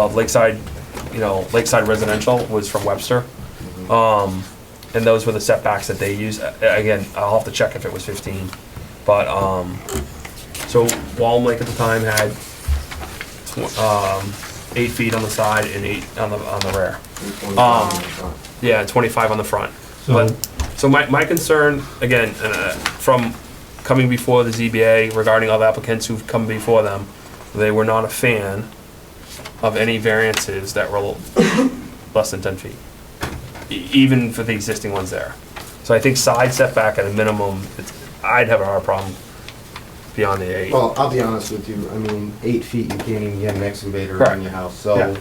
of Lakeside, you know, Lakeside Residential was from Webster. Um, and those were the setbacks that they used. A- Again, I'll have to check if it was fifteen, but, um, so Walm Lake at the time had, tw- um, eight feet on the side and eight on the, on the rear. Um, Yeah, twenty-five on the front. So, But, so my, my concern, again, uh, from coming before the ZBA regarding other applicants who've come before them, they were not a fan of any variances that were less than ten feet. E- Even for the existing ones there. So I think side setback at a minimum, it's, I'd have a hard problem beyond the eight. Well, I'll be honest with you, I mean, eight feet, you can't even get an excavator Correct. in your house, Yeah. so. I-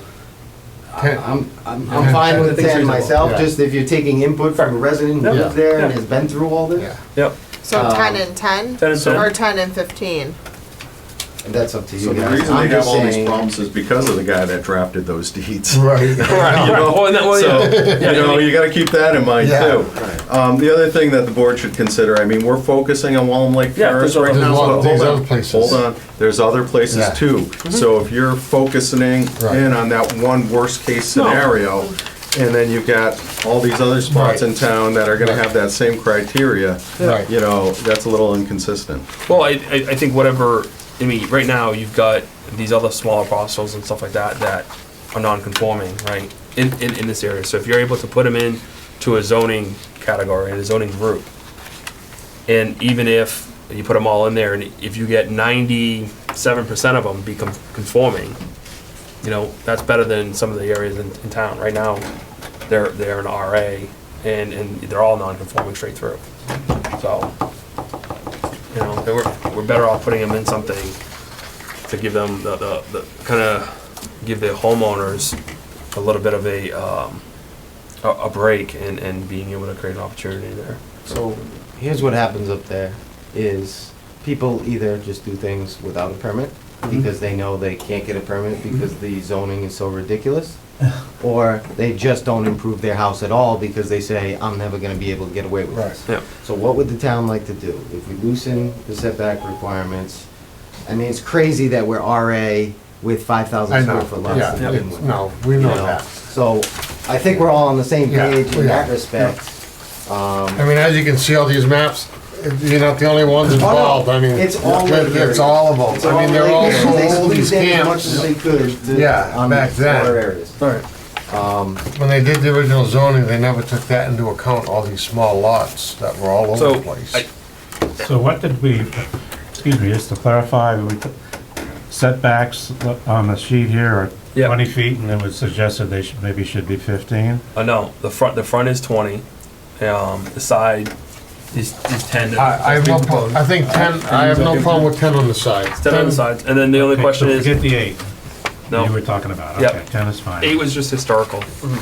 Ten- I'm, I'm, Yeah. I'm fine I with think it's ten reasonable, myself, yeah. just if you're taking input from a resident who Yeah. lives there and Yeah. has been through all this, yeah, Yep, So Um, ten and ten? 10 and 10. Or ten and fifteen? that's up to So you the guys. reason they I'm have just all these saying, problems is because of the guy that drafted those deeds. right. right, right. Well, and that- well, So, yeah. you know, you gotta keep that in mind Yeah. too. Right. Um, the other thing that the board should consider, I mean, we're focusing on Wallem Lake Yeah, there's Terrace right other- now. There's but other- hold there's on, other places. Hold on, there's other places Yeah. too. Mm-hmm. So if you're focusing Right. in on that one worst-case No. scenario, and then you've got all these other spots Right. in town that are gonna have that same criteria, Right. you know, that's a little inconsistent. Well, I, I, I think whatever, I mean, right now, you've got these other smaller parcels and stuff like that that are non-conforming, right, in, in, in this area. So if you're able to put them in to a zoning category, and a zoning group, and even if you put them all in there, and if you get ninety-seven percent of them become conforming, you know, that's better than some of the areas in, in town. Right now, they're, they're an RA, and, and they're all non-conforming straight through. So, you know, they we're, we're better off putting them in something to give them the, the, the, kinda give the homeowners a little bit of a, um, a, a break and, and being able to create an opportunity there. So, here's what happens up there, is people either just do things without a permit, Mm-hmm. because they know they can't get a permit because the zoning is so ridiculous, or they just don't improve their house at all because they say, I'm never gonna be able to get away with Right. this. Yeah, So what would the town like to do? If we loosen the setback requirements, I mean, it's crazy that we're RA with five I thousand know, square foot yeah, lots to begin it's- with. no, we you know know? that. So I think we're all on the same Yeah, page we in that are. respect. I mean, as you can see, all these maps, you're not the only ones Oh, no, involved, I mean. it's all it- Lake It's area. all of them, I mean, they're all so They old, these squeezed in as much as camps. they could to- Yeah, on back these smaller then. areas. When they did the original zoning, they never took that into account, all these small lots that were all over so, the place. I, So what did we, excuse me, just to clarify, we t- setbacks on the sheet here are Yeah. 20 feet, and it was suggested they should, maybe should be 15? uh, no, the front, the front is twenty, um, the side is, is ten. I, I have no problem, I think ten, I have no problem with ten on the side. It's ten on the sides, and then the only Okay, question so is, Forget the eight you no, were talking about, Yep. okay, 10 is fine. eight was just historical. We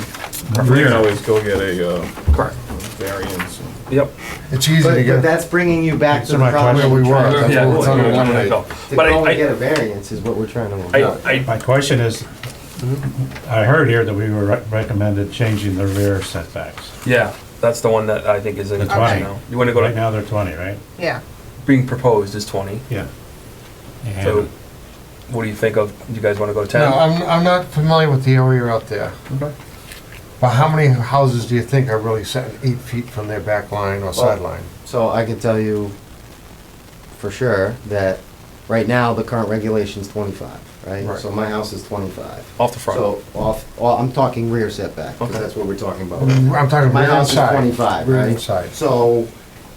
can Rear. always go get a uh, Correct. variance. Yep. It's easy to But, but get, that's bringing you back to Answer the my problem. question. Where we we're trying were, to- that's Yeah, what we're trying to yeah, eliminate. go. To But I, go and get a I, variance is what we're trying to avoid. I, I, My question is, I heard here that we were re- recommended changing the rear setbacks. Yeah, that's the one that I think is in The question 20. now. You wanna go Right to, now, they're 20, right? Yeah. being proposed is twenty, Yeah. so And what do you think of, you guys wanna go to ten? no, I'm, I'm not familiar with the area out there. But how many houses do you think are really setting eight feet from their back line or sideline? So I can tell you for sure that right now, the current regulation's twenty-five, right? Right. So my house is twenty-five. Off the front. So off, oh, I'm talking rear setback, because Okay. that's what we're talking about. Mm-hmm. I'm talking My rear and house is side. twenty-five, Rear right? and side. So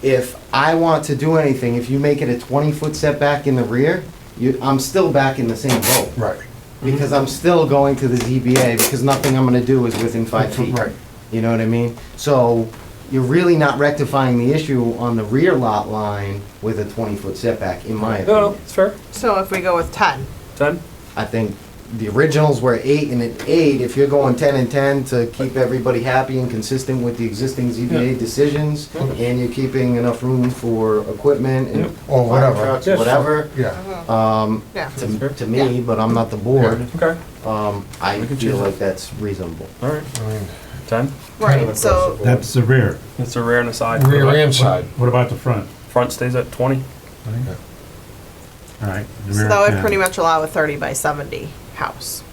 if I want to do anything, if you make it a twenty-foot setback in the rear, you, I'm still back in the same boat. Right, Mm-hmm. Because I'm still going to the ZBA, because nothing I'm gonna do is within five feet. right. You know what I mean? So you're really not rectifying the issue on the rear lot line with a twenty-foot setback, in my No, no, opinion. it's fair, So if we go with ten, ten? I think the originals were eight and an eight, if you're going ten and ten to keep everybody happy and consistent with the existing ZBA decisions, and you're keeping enough room for equipment Yep. and fire Or whatever. trucks, Yes. whatever, yeah. um, yeah. to, to me, but I'm not the board, Okay, um, I We can feel choose like that's reasonable. all right, I mean, ten. kind Right, of so, that's the rear. It's a rear and a side. Rear and side. What about the front? Front stays at twenty. All right. the so rear that would 10. pretty much allow a thirty by seventy house.